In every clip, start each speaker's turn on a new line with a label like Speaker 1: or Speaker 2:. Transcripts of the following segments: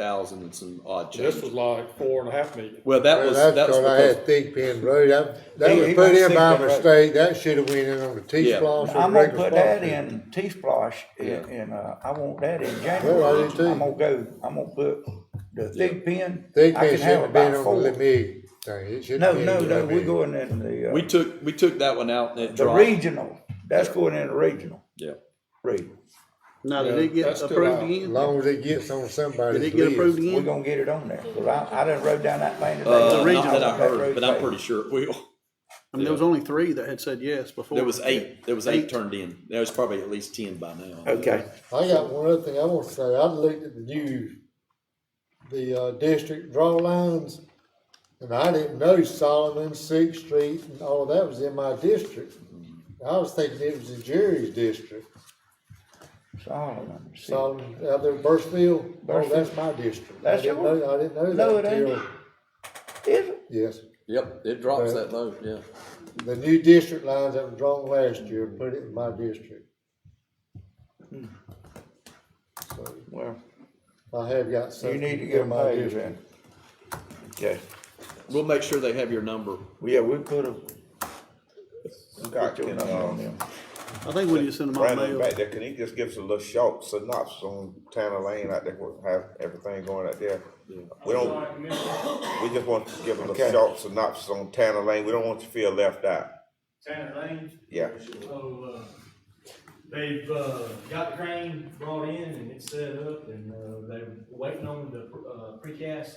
Speaker 1: thousand and some odd
Speaker 2: This was
Speaker 1: change.
Speaker 2: like four and a half million.
Speaker 1: Well, that
Speaker 3: Well,
Speaker 1: was,
Speaker 3: that's
Speaker 1: that was
Speaker 3: because I
Speaker 1: because,
Speaker 3: had thick pin road, that, that
Speaker 4: He-
Speaker 3: was
Speaker 4: he
Speaker 3: put
Speaker 4: must
Speaker 3: in
Speaker 4: think
Speaker 3: by
Speaker 4: that road.
Speaker 3: mistake, that should have went in on the
Speaker 1: Yeah.
Speaker 3: T-splosh or
Speaker 4: I'm
Speaker 3: the
Speaker 4: gonna
Speaker 3: regular
Speaker 4: put
Speaker 3: splosh.
Speaker 4: that in T-Splosh in,
Speaker 1: Yeah.
Speaker 4: in, uh, I want that in
Speaker 3: Well, I
Speaker 4: January.
Speaker 3: do too.
Speaker 4: I'm gonna go, I'm gonna put the thick pin.
Speaker 3: Thick
Speaker 4: I
Speaker 3: pin
Speaker 4: can
Speaker 3: shouldn't
Speaker 4: have
Speaker 3: have been
Speaker 4: about
Speaker 3: on the
Speaker 4: four.
Speaker 3: Lemig thing, it shouldn't
Speaker 4: No,
Speaker 3: have been.
Speaker 4: no,
Speaker 3: in
Speaker 4: no, we
Speaker 3: Lemig.
Speaker 4: going in the,
Speaker 1: we
Speaker 4: uh,
Speaker 1: took, we took that one out and it
Speaker 4: the
Speaker 1: dropped.
Speaker 4: regional. That's going in the regional,
Speaker 1: Yeah.
Speaker 4: regional.
Speaker 5: Now,
Speaker 2: Yeah,
Speaker 5: did it get
Speaker 2: that's still
Speaker 5: approved
Speaker 2: out.
Speaker 3: As
Speaker 5: again?
Speaker 3: long as it gets on
Speaker 5: Did
Speaker 3: somebody's
Speaker 5: it get approved
Speaker 3: list.
Speaker 4: We're
Speaker 5: again?
Speaker 4: gonna get it on there, 'cause I, I done rode down that thing today.
Speaker 1: Uh, not
Speaker 5: regional.
Speaker 1: that I heard,
Speaker 4: road
Speaker 1: but I'm
Speaker 4: paved.
Speaker 1: pretty sure it will.
Speaker 5: I mean, there was only three that had said yes before.
Speaker 1: There was eight, there was eight
Speaker 5: Eight.
Speaker 1: turned in. There was probably at least ten by now.
Speaker 5: Okay.
Speaker 3: I got one other thing I want to say, I looked at the news, the, uh, district draw lines, and I didn't know Solomon, Sixth Street, and all of that was in my district. I was thinking it was the jury's district,
Speaker 4: Solomon, see.
Speaker 3: Solomon, out there in Burstfield, oh,
Speaker 4: Burstfield.
Speaker 3: that's my district. I
Speaker 4: That's
Speaker 3: didn't
Speaker 4: yours?
Speaker 3: know- I didn't know
Speaker 4: No,
Speaker 3: that
Speaker 4: it ain't.
Speaker 3: until,
Speaker 4: Is it?
Speaker 3: yes.
Speaker 1: Yep, it drops
Speaker 3: Right.
Speaker 1: that low, yeah.
Speaker 3: The new district lines that were drawn last year, put it in my district.
Speaker 4: Well,
Speaker 3: I have got some.
Speaker 4: you need to get
Speaker 3: in
Speaker 4: them
Speaker 3: my
Speaker 4: paid
Speaker 3: district.
Speaker 4: then. Okay,
Speaker 1: We'll make sure they have your number.
Speaker 4: well, yeah, we put a. Got your number
Speaker 1: uh,
Speaker 4: on them.
Speaker 5: I think we need to send them out
Speaker 6: Brandon
Speaker 5: mail.
Speaker 6: back there, can he just give us a little short synopsis on Tanner Lane out there, what- how everything going out there? We don't, we just want to give a little
Speaker 4: Okay.
Speaker 6: short synopsis on Tanner Lane, we don't want you to feel left out.
Speaker 7: Tanner Lane.
Speaker 6: Yeah.
Speaker 7: So, uh, they've, uh, got the crane brought in and it's set up and, uh, they're waiting on the, uh, precast,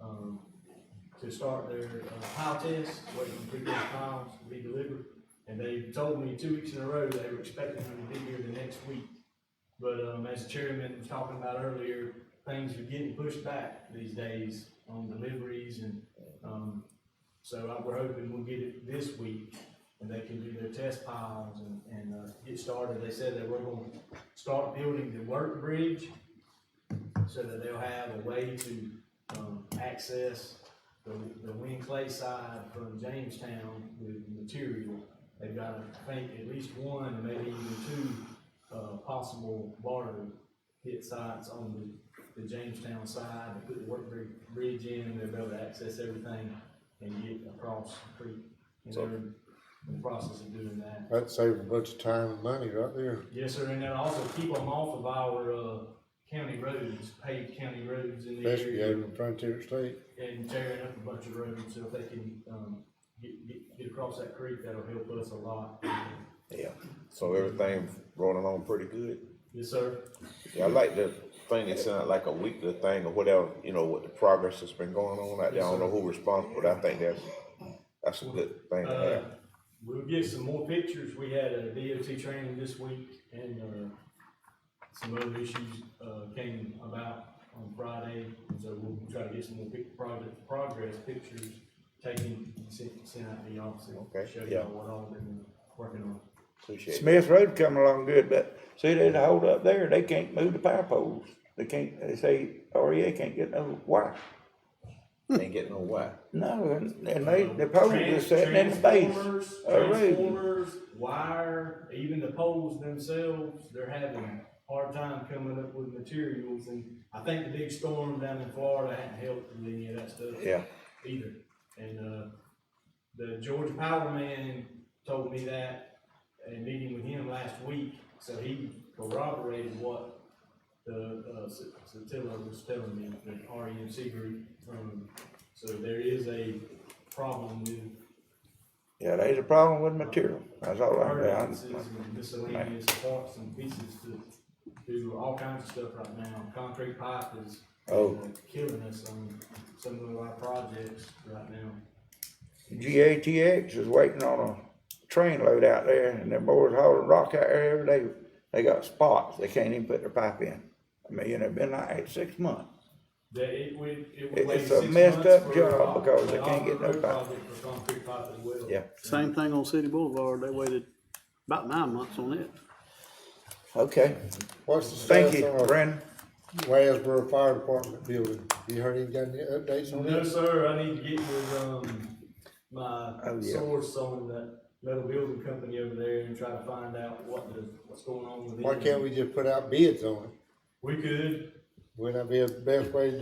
Speaker 7: um, to start their, uh, pile test, waiting for precast piles to be delivered. And they told me two weeks in a row they were expecting them to be here the next week. But, um, as the chairman was talking about earlier, things are getting pushed back these days on deliveries and, um, so I- we're hoping we'll get it this week and they can do their test piles and, and, uh, get started. They said they were gonna start building the work bridge so that they'll have a way to, um, access the, the Wind Clay side from Jamestown with material. They've got, I think, at least one, and maybe even two, uh, possible water hit sites on the, the Jamestown side. They put the work bri- bridge in, they'll be able to access everything and get across the creek. And they're in the process of doing that.
Speaker 3: That'd save a bunch of time and money right there.
Speaker 7: Yes, sir, and then also keep them off of our, uh, county roads, paved county roads in the
Speaker 3: Especially
Speaker 7: area
Speaker 3: over in Frontier State.
Speaker 7: and tearing up a bunch of roads, so if they can, um, get, get, get across that creek, that'll help us a lot.
Speaker 6: Yeah. So everything rolling along pretty good.
Speaker 7: Yes, sir.
Speaker 6: Yeah, I like the thing that sounded like a weekly thing or whatever, you know, with the progress that's been going on out there, I don't know who responsible, but I think that's, that's a good thing to
Speaker 7: Uh,
Speaker 6: have.
Speaker 7: we'll get some more pictures, we had a DOT training this week, and, uh, some other issues, uh, came about on Friday, and so we'll try to get some more pic, project, progress pictures taken, sent, sent out to y'all, so
Speaker 6: Okay,
Speaker 7: show
Speaker 6: yeah.
Speaker 7: y'all what all they've been working on.
Speaker 6: Appreciate it.
Speaker 4: Smith Road coming along good, but see, there's a hold up there, they can't move the power poles. They can't, they say REA can't get no wire.
Speaker 6: Ain't getting no why.
Speaker 4: No, and, and they, the poles
Speaker 7: Trans-
Speaker 4: just sitting in the base.
Speaker 7: Transformers,
Speaker 4: of the road.
Speaker 7: transformers, wire, even the poles themselves, they're having a hard time coming up with materials, and I think the big storm down in Florida hadn't helped with any of that stuff
Speaker 6: Yeah.
Speaker 7: either. And, uh, the Georgia Power Man told me that at a meeting with him last week, so he corroborated what the, uh, S- Satilla was telling me, the REMC group, um, so there is a problem with
Speaker 4: Yeah, there's a problem with material, that's all I
Speaker 7: Hard
Speaker 4: know.
Speaker 7: and miscellaneous parts and pieces to do all kinds of stuff right now. Concrete pipe is
Speaker 4: Oh.
Speaker 7: killing us on some of our projects right now.
Speaker 4: GATX is waiting on a train load out there, and their boys hauling rock out there every day. They got spots, they can't even put their pipe in. I mean, you know, been like that six months.
Speaker 7: That it would, it would
Speaker 4: It-
Speaker 7: wait
Speaker 4: it's
Speaker 7: six
Speaker 4: a
Speaker 7: months.
Speaker 4: messed up
Speaker 7: for
Speaker 4: job
Speaker 7: all-
Speaker 4: because they
Speaker 7: for
Speaker 4: can't
Speaker 7: all
Speaker 4: get no
Speaker 7: road
Speaker 4: pipe.
Speaker 7: project For concrete pipe as well.
Speaker 4: Yeah.
Speaker 5: Same thing on City Boulevard, they waited about nine months on it.
Speaker 4: Okay,
Speaker 3: What's the
Speaker 4: thank
Speaker 3: status
Speaker 4: you,
Speaker 3: on our
Speaker 4: Brandon.
Speaker 3: Wasboro Fire Department building? You heard any, got any updates on
Speaker 7: No,
Speaker 3: that?
Speaker 7: sir, I need to get with, um, my
Speaker 4: Oh, yeah.
Speaker 7: source on that metal building company over there and try to find out what the, what's going on with it.
Speaker 3: Why can't we just put out bids on it?
Speaker 7: We could,
Speaker 3: Would that be the best way to